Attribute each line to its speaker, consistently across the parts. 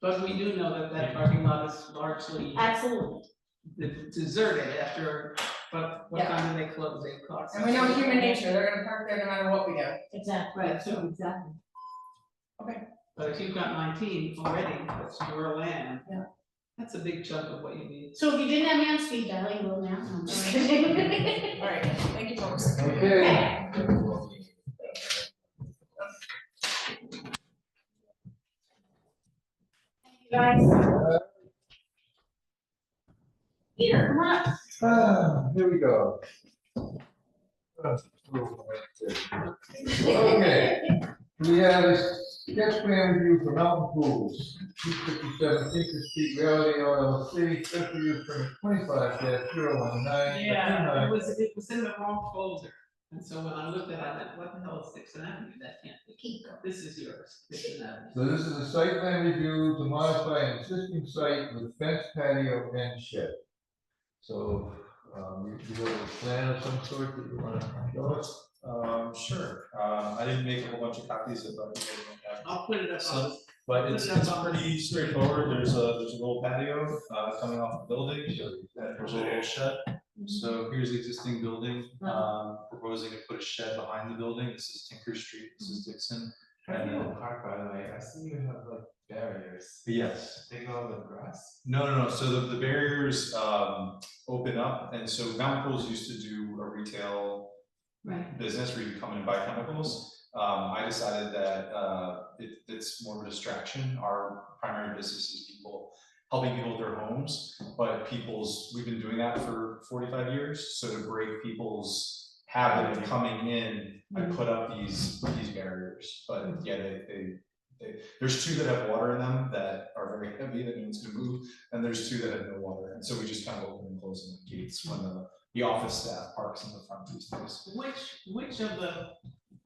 Speaker 1: But we do know that that parking lot is largely
Speaker 2: absolutely.
Speaker 1: de- deserted after, but what
Speaker 3: Yeah.
Speaker 1: time do they close, eight o'clock?
Speaker 3: And we know human nature, they're gonna park there no matter what we do.
Speaker 2: Exactly.
Speaker 1: Right, so,
Speaker 2: Exactly.
Speaker 1: but if you've got nineteen already, that's your land.
Speaker 3: Yeah.
Speaker 1: That's a big chunk of what you need.
Speaker 2: So if you didn't have me on speed dial, you will now, No, I'm just kidding.
Speaker 3: Alright, thank you, folks.
Speaker 4: Okay.
Speaker 2: Guys. Peter, come on up.
Speaker 4: Ah, here we go. Okay, we have a sketch plan review for Mountain Pools, two fifty-seven Tinker Street, Reality LLC, special use permit twenty-five dash zero one nine.
Speaker 1: It was, it was in the wrong folder, and so when I looked at it, I went, what the hell is Dixon Avenue, that can't be, this is yours, Dixon Avenue.
Speaker 4: So this is a site plan review to modify an existing site with fence patio and shed. So, um, you, you have a plan of some sort that you wanna show us?
Speaker 5: Um, sure, um, I didn't make a whole bunch of copies of, uh,
Speaker 1: I'll put it up on
Speaker 5: So- but it's, it's pretty straightforward, there's a, there's a little patio, uh, coming off the building, and there's a little shed. So here's the existing building, um, proposing to put a shed behind the building, this is Tinker Street, this is Dixon.
Speaker 6: How do
Speaker 5: And
Speaker 6: you
Speaker 5: then-
Speaker 6: park, by the way? I see you have like barriers.
Speaker 5: Yes,
Speaker 6: They go over the grass?
Speaker 5: No, no, no, so the, the barriers, um, open up, and so Mount Pools used to do a retail
Speaker 1: Right.
Speaker 5: business where you come in and buy chemicals. Um, I decided that, uh, it, it's more of a distraction, our primary business is people, helping people with their homes, but people's, we've been doing that for forty-five years, so to break people's habit of coming in, I put up these, these barriers, but yeah, they, they, they, there's two that have water in them that are very heavy that no one's gonna move, and there's two that have no water, and so we just kind of open and close them the gates when the, the office staff parks in the front these days.
Speaker 1: Which, which of the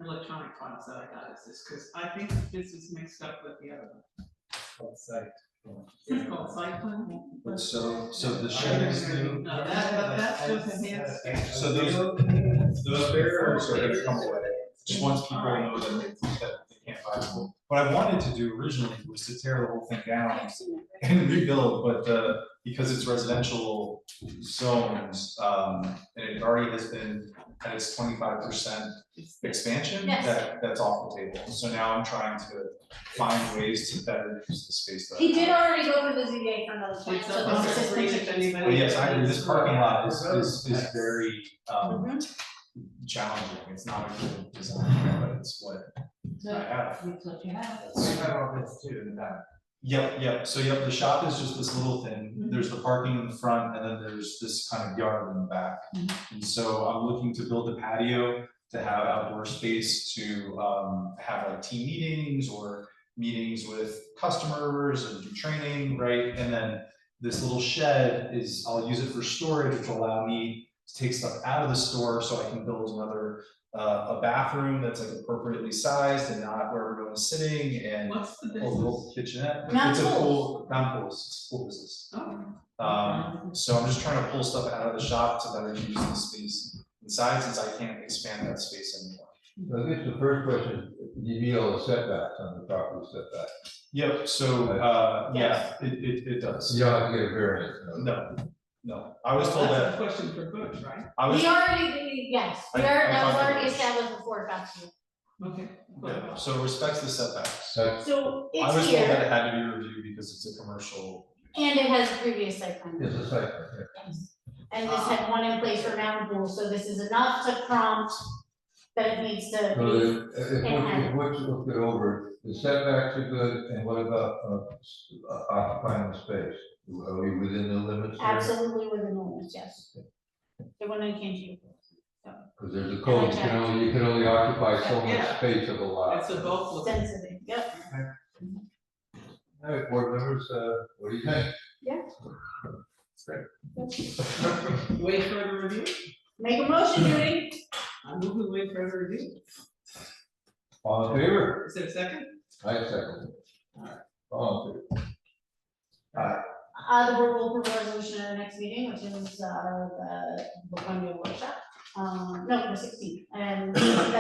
Speaker 1: electronic files that I got is this, because I think this is mixed up with the other one.
Speaker 6: Outside.
Speaker 1: It's called site plan?
Speaker 5: But so, so the shed is new,
Speaker 1: No, that, but that's just a hand.
Speaker 5: so those, those barriers are gonna come away, just once people know that they, that they can't buy them. What I wanted to do originally was to tear the whole thing down
Speaker 2: I've seen it.
Speaker 5: and rebuild, but, uh, because it's residential zones, um, and it already has been at its twenty-five percent expansion,
Speaker 2: Yes.
Speaker 5: that, that's off the table. So now I'm trying to find ways to better use the space that I have.
Speaker 2: He did already go to the ZBA for another plan,
Speaker 1: It's
Speaker 2: so
Speaker 1: up on the
Speaker 2: this is
Speaker 1: screen if
Speaker 2: just.
Speaker 1: anybody.
Speaker 5: Well, yes, I agree, this parking lot is, is, is
Speaker 6: Yes.
Speaker 5: very, um,
Speaker 2: Mhm.
Speaker 5: challenging, it's not a good design, but it's what I have.
Speaker 6: We have all this too in the back.
Speaker 5: Yep, yep, so yep, the shop is just this little thing, there's the parking in the front, and then there's this kind of yard in the back. And so I'm looking to build a patio to have outdoor space to, um, have like team meetings or meetings with customers and do training, right? And then this little shed is, I'll use it for storage, which will allow me to take stuff out of the store, so I can build another, uh, a bathroom that's like appropriately sized and not where everyone's sitting and
Speaker 1: What's the
Speaker 5: a
Speaker 1: business?
Speaker 5: little kitchenette.
Speaker 2: Not
Speaker 5: It's a
Speaker 2: pools.
Speaker 5: pool, not pools, it's pool business.
Speaker 1: Oh,
Speaker 5: Um, so I'm just trying to pull stuff out of the shop to better use the space inside since I can't expand that space anymore.
Speaker 4: So I guess the first question, you meet all the setbacks on the property setback.
Speaker 5: Yep, so, uh, yeah, it, it, it does.
Speaker 4: You don't have to get a variance.
Speaker 5: No, no, I was told
Speaker 1: that's a
Speaker 5: that,
Speaker 1: question for Butch, right?
Speaker 5: I was,
Speaker 2: We already, yes, we
Speaker 5: I- I
Speaker 2: already, that was
Speaker 5: thought that
Speaker 2: already
Speaker 5: was-
Speaker 2: established before it got to you.
Speaker 1: Okay.
Speaker 5: yeah, so respects the setbacks.
Speaker 4: That's
Speaker 2: So
Speaker 5: I was
Speaker 2: it's
Speaker 5: told that
Speaker 2: here,
Speaker 5: it had to be reviewed because it's a commercial.
Speaker 2: and it has previous site plan.
Speaker 4: it's a site, plan,
Speaker 2: Yes. And this had one in place for Mountain Pool, so this is enough to prompt that it needs to
Speaker 4: yeah. So
Speaker 2: be,
Speaker 4: if, if what you, if what you look it over, the setbacks are good, and what about uh, s- uh, occupying the space? Are we within the limits there?
Speaker 2: absolutely within the limits, yes. The one that came to you.
Speaker 4: Because there's a code, you can only, you can only occupy so much
Speaker 1: Yeah.
Speaker 4: space of a lot.
Speaker 1: It's a both. look.
Speaker 2: Sensitive, yep.
Speaker 4: All right, board members, uh, what do you think?
Speaker 1: Wait for the review?
Speaker 2: Make a motion, Judy.
Speaker 1: I'm moving wait for the review.
Speaker 4: All in favor?
Speaker 1: Is there a second?
Speaker 4: I second. it. All in favor?
Speaker 2: Uh, the board will propose a resolution at our next meeting, which is, uh, the, the one-day workshop, um, no, the sixteenth, and